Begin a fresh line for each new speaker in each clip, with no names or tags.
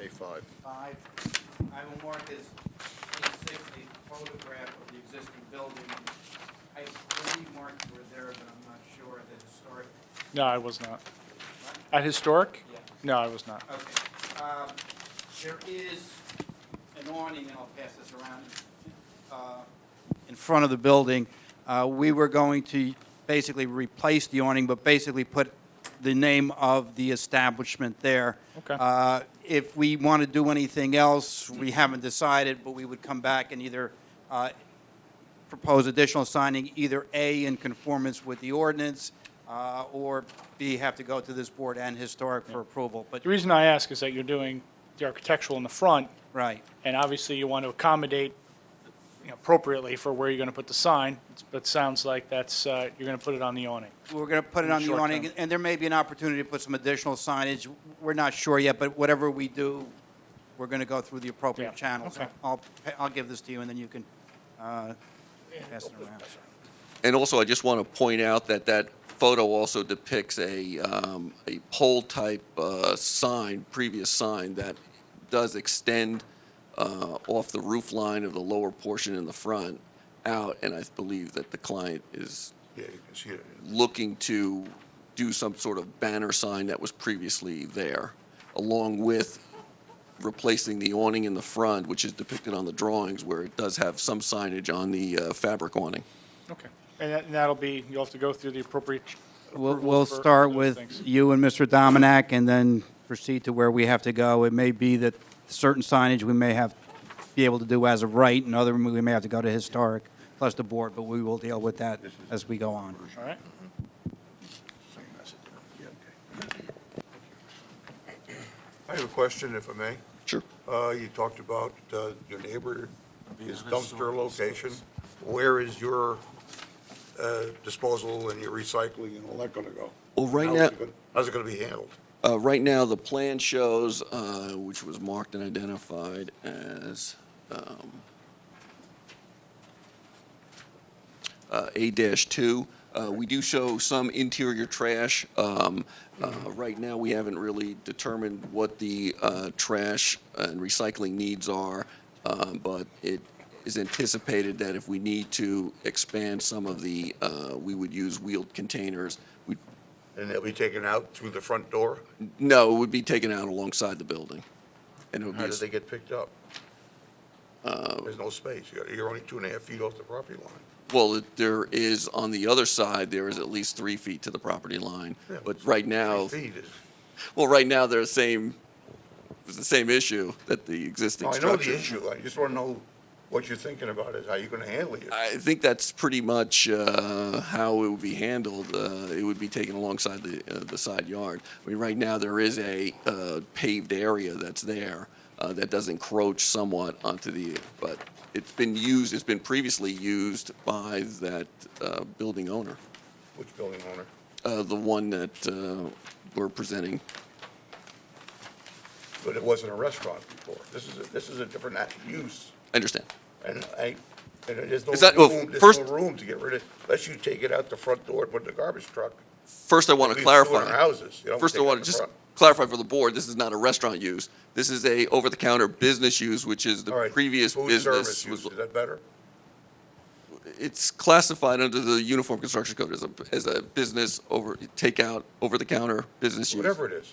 A5.
five. I will mark as page six a photograph of the existing building. I believe, Mark, you were there, but I'm not sure, the historic,
No, I was not. At Historic?
yeah.
No, I was not.
Okay. Um, There is an awning, and I'll pass this around, uh, in front of the building. Uh, We were going to basically replace the awning, but basically put the name of the establishment there.
Okay.
Uh, If we want to do anything else, we haven't decided, but we would come back and either uh, propose additional signing, either A, in conformance with the ordinance, uh, or B, have to go to this board and historic for approval. But
The reason I ask is that you're doing the architectural in the front,
Right,
and obviously you want to accommodate you know, appropriately for where you're going to put the sign, but it sounds like that's, uh, you're going to put it on the awning.
we're going to put it
the
on the
short
awning,
term.
and there may be an opportunity to put some additional signage. We're not sure yet, but whatever we do, we're going to go through the
Yeah,
appropriate channels.
okay.
I'll, I'll give this to you, and then you can uh, pass it around.
And also, I just want to point out that that photo also depicts a, um, a pole-type, uh, sign, previous sign that does extend, uh, off the roof line of the lower portion in the front out, and I believe that the client is
Yeah, you can see it.
looking to do some sort of banner sign that was previously there, along with replacing the awning in the front, which is depicted on the drawings, where it does have some signage on the, uh, fabric awning.
Okay. And that- and that'll be, you'll have to go through the appropriate.
We'll,
approval
we'll
for
start
those
with
things.
you and Mr. Dominack, and then proceed to where we have to go. It may be that certain signage we may have, be able to do as of right, and other, we may have to go to historic, plus the board, but we will deal with that as we go on.
All right?
Same message. Yeah, okay. I have a question, if I may.
Sure.
Uh, You talked about uh, your neighbor, his dumpster location. Where is your uh, disposal and your recycling and all that going to go?
Well, right
How's it
now-
gonna- How's it going to be handled?
Uh, Right now, the plan shows, uh, which was marked and identified as um, uh, A-2. Uh, We do show some interior trash. Um, uh, Right now, we haven't really determined what the uh, trash and recycling needs are, uh, but it is anticipated that if we need to expand some of the, uh, we would use wheeled containers. We'd
And they'll be taken out through the front door?
no, it would be taken out alongside the building. And it would be,
How
a
do
s-
they get picked up?
Um,
There's no space. You got- You're only two and a half feet off the property line.
well, it- there is, on the other side, there is at least three feet to the property line.
Yeah,
But right now,
Three feet is,
well, right now, they're the same, it's the same issue that the existing
No, Oh, I
structure.
know the issue. I just want to know what you're thinking about is how you're going to handle it.
I think that's pretty much uh, how it would be handled. Uh, It would be taken alongside the, uh, the side yard. I mean, right now, there is a uh, paved area that's there uh, that does encroach somewhat onto the, but it's been used, it's been previously used by that uh, building owner,
Which building owner?
uh, the one that uh, we're presenting.
But it wasn't a restaurant before. This is, a- this is a different act- use.
I understand.
And I, and there's no
Is that- well,
room, there's
first-
no room to get rid of, unless you take it out the front door and put it in the garbage truck.
First, I want
We
to
threw it in
clarify.
our houses. You don't
First, I
take it
want to
out the
just
front.
clarify for the board, this is not a restaurant use. This is a over-the-counter business use, which is
All
the
right,
previous
food
business.
service
was-
use, Is that better?
It's classified under the Uniform Construction Code as a, as a business over, takeout, over-the-counter business use.
Whatever it is.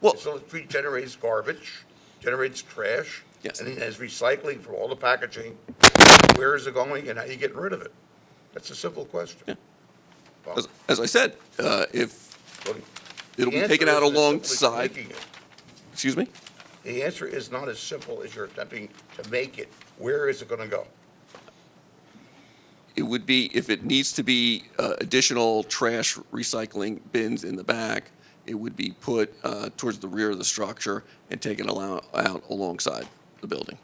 Well,
So it pre- generates garbage, generates trash.
Yes.
And it has recycling from all the packaging. Where is it going and how you getting rid of it? That's a simple question. Well,
as- as I said, uh, if,
well,
it'll
the
be taken
answer
out
isn't as simple as
alongside-
making it.
excuse me?
The answer is not as simple as you're attempting to make it. Where is it going to go?
It would be, if it needs to be uh, additional trash recycling bins in the back, it would be put uh, towards the rear of the structure and taken allow- out alongside the building.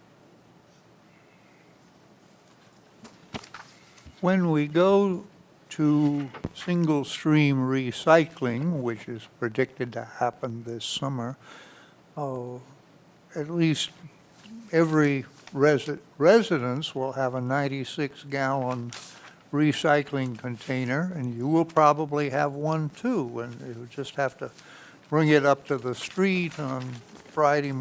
When we go to single-stream recycling, which is predicted to happen this summer, oh, at least every resi- residence will have a 96-gallon recycling container, and you will probably have one too, and you just have to bring it up to the street on Friday